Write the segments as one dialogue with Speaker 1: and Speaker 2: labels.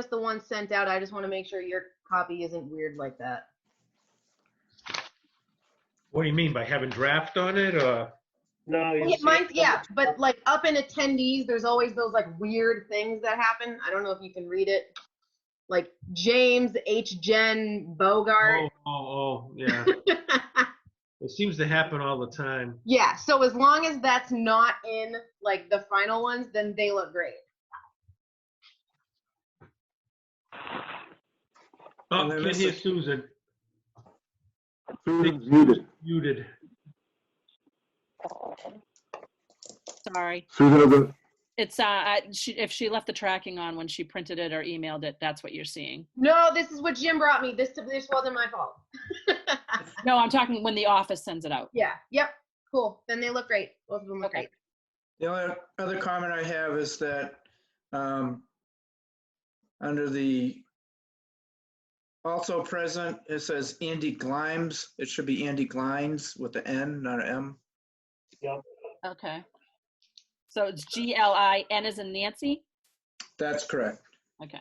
Speaker 1: just the one sent out. I just want to make sure your copy isn't weird like that.
Speaker 2: What do you mean by having draft on it or?
Speaker 3: No. you
Speaker 1: Yeah,
Speaker 3: see-
Speaker 1: mine, yeah, but like up in attendees, there's always those like weird things that happen. I don't know if you can read it. Like James H. Jen Bogart.
Speaker 2: Oh, oh, oh, yeah. It seems to happen all the time.
Speaker 1: yeah, so as long as that's not in like the final ones, then they look great.
Speaker 2: Oh,
Speaker 3: And then
Speaker 2: can't
Speaker 3: this
Speaker 2: hear
Speaker 3: is-
Speaker 2: Susan,
Speaker 4: Susan's muted.
Speaker 2: muted.
Speaker 5: Sorry.
Speaker 4: Susan doesn't,
Speaker 5: It's, uh, I- she- if she left the tracking on when she printed it or emailed it, that's what you're seeing.
Speaker 1: No, this is what Jim brought me. This this wasn't my fault.
Speaker 5: No, I'm talking when the office sends it out.
Speaker 1: Yeah. Yep. Cool. Then they look great. Both of them look
Speaker 5: Okay.
Speaker 1: great.
Speaker 3: The only other comment I have is that um, under the also present, it says Andy Glimes. It should be Andy Glines with the N, not an M.
Speaker 5: Okay. So it's G L I N as in Nancy?
Speaker 3: That's correct.
Speaker 5: Okay.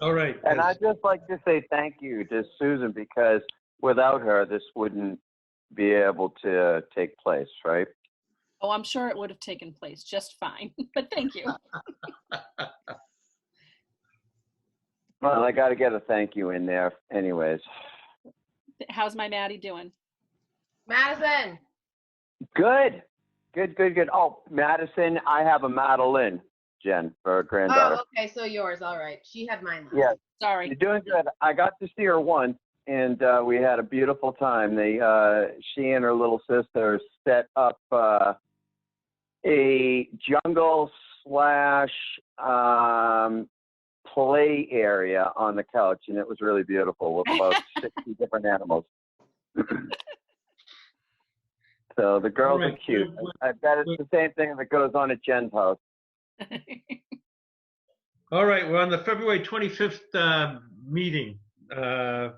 Speaker 2: All right.
Speaker 6: And I'd just like to say thank you to Susan because without her, this wouldn't be able to take place, right?
Speaker 5: Oh, I'm sure it would have taken place just fine, but thank you.
Speaker 6: Well, I got to get a thank you in there anyways.
Speaker 5: How's my Maddie doing?
Speaker 1: Madison.
Speaker 6: Good, good, good, good. Oh, Madison, I have a Madeline, Jen, for her granddaughter.
Speaker 1: Oh, okay. So yours. All right. She had mine last.
Speaker 6: Yeah,
Speaker 5: Sorry.
Speaker 6: you're doing good. I got to see her once and uh, we had a beautiful time. They, uh, she and her little sister set up uh, a jungle slash um, play area on the couch and it was really beautiful with about 60 different animals. so the girls are
Speaker 2: Alright,
Speaker 6: cute.
Speaker 2: so
Speaker 6: I bet it's the same thing that goes on at Jen's house.
Speaker 2: All right, we're on the February 25th uh, meeting. uh,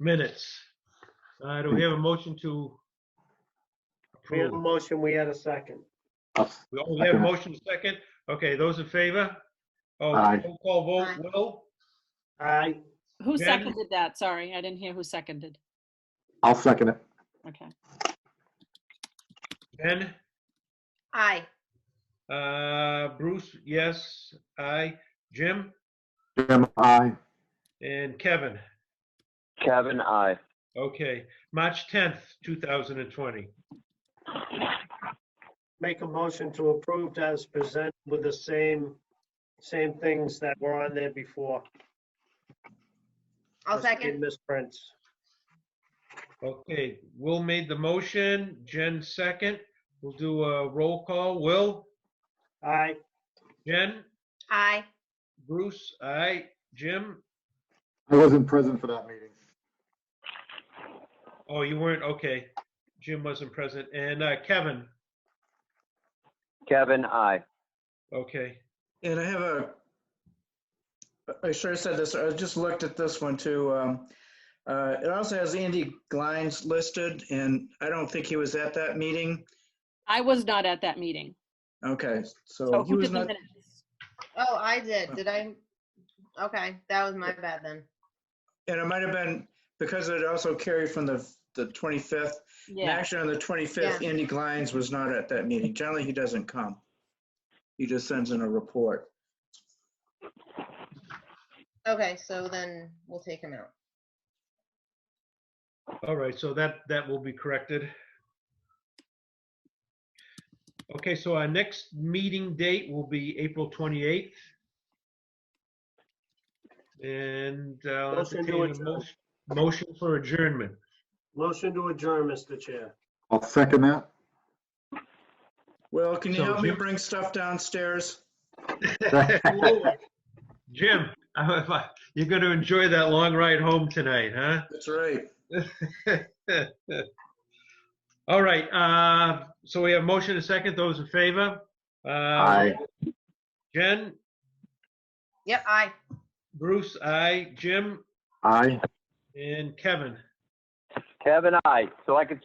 Speaker 2: Minutes. Uh, Do we have a motion to
Speaker 7: We had a
Speaker 2: approve?
Speaker 7: motion, we had a second.
Speaker 2: We all have a motion second? Okay, those in favor? Oh,
Speaker 4: Aye.
Speaker 2: roll call vote, Will?
Speaker 7: Aye,
Speaker 5: Who
Speaker 2: Jen?
Speaker 5: seconded that? Sorry, I didn't hear who seconded.
Speaker 4: I'll second it.
Speaker 5: Okay.
Speaker 2: Ben?
Speaker 1: Aye.
Speaker 2: Uh, Bruce, yes. I, Jim?
Speaker 4: Jim, aye.
Speaker 2: And Kevin?
Speaker 6: Kevin, I.
Speaker 2: Okay, March 10th, 2020.
Speaker 7: make a motion to approve as presented with the same, same things that were on there before.
Speaker 1: I'll
Speaker 7: Must be
Speaker 1: second.
Speaker 7: Misprints.
Speaker 2: Okay, Will made the motion, Jen second. We'll do a roll call. Will,
Speaker 7: Aye,
Speaker 2: Jen,
Speaker 1: Aye.
Speaker 2: Bruce, I, Jim?
Speaker 4: I wasn't present for that meeting.
Speaker 2: Oh, you weren't, okay. Jim wasn't present. And uh, Kevin,
Speaker 6: Kevin, I.
Speaker 2: okay.
Speaker 3: And I have a, I sure said this, I just looked at this one too. Um, uh, It also has Andy Glines listed, and I don't think he was at that meeting.
Speaker 5: I was not at that meeting.
Speaker 3: Okay, so
Speaker 5: So
Speaker 3: he
Speaker 5: Oh, who
Speaker 3: was
Speaker 5: did the
Speaker 3: not,
Speaker 5: minutes?
Speaker 1: Oh, I did. Did I? Okay. That was my bad then.
Speaker 3: and it might have been, because it also carried from the, the 25th. And
Speaker 5: Yeah.
Speaker 3: actually, on the 25th, Andy Glines was not at that meeting. Generally, he doesn't come. He just sends in a report.
Speaker 1: Okay. So then we'll take him out.
Speaker 2: All right, so that, that will be corrected. Okay, so our next meeting date will be April 28th. And uh, I'll
Speaker 7: Motion to
Speaker 2: entertain a
Speaker 7: adjourn.
Speaker 2: motion- motion for adjournment.
Speaker 7: motion to adjourn, Mr. Chair.
Speaker 4: I'll second that.
Speaker 3: Well, can you
Speaker 2: So
Speaker 3: help me
Speaker 2: Jim-
Speaker 3: bring stuff downstairs?
Speaker 2: Jim, you're going to enjoy that long ride home tonight, huh?
Speaker 3: That's right.
Speaker 2: All right, uh, so we have motion and second. Those in favor? Uh,
Speaker 4: Aye.
Speaker 2: Jen,
Speaker 1: Yep. Aye.
Speaker 2: Bruce, I, Jim,
Speaker 4: Aye.
Speaker 2: and Kevin.
Speaker 6: Kevin, I. So I could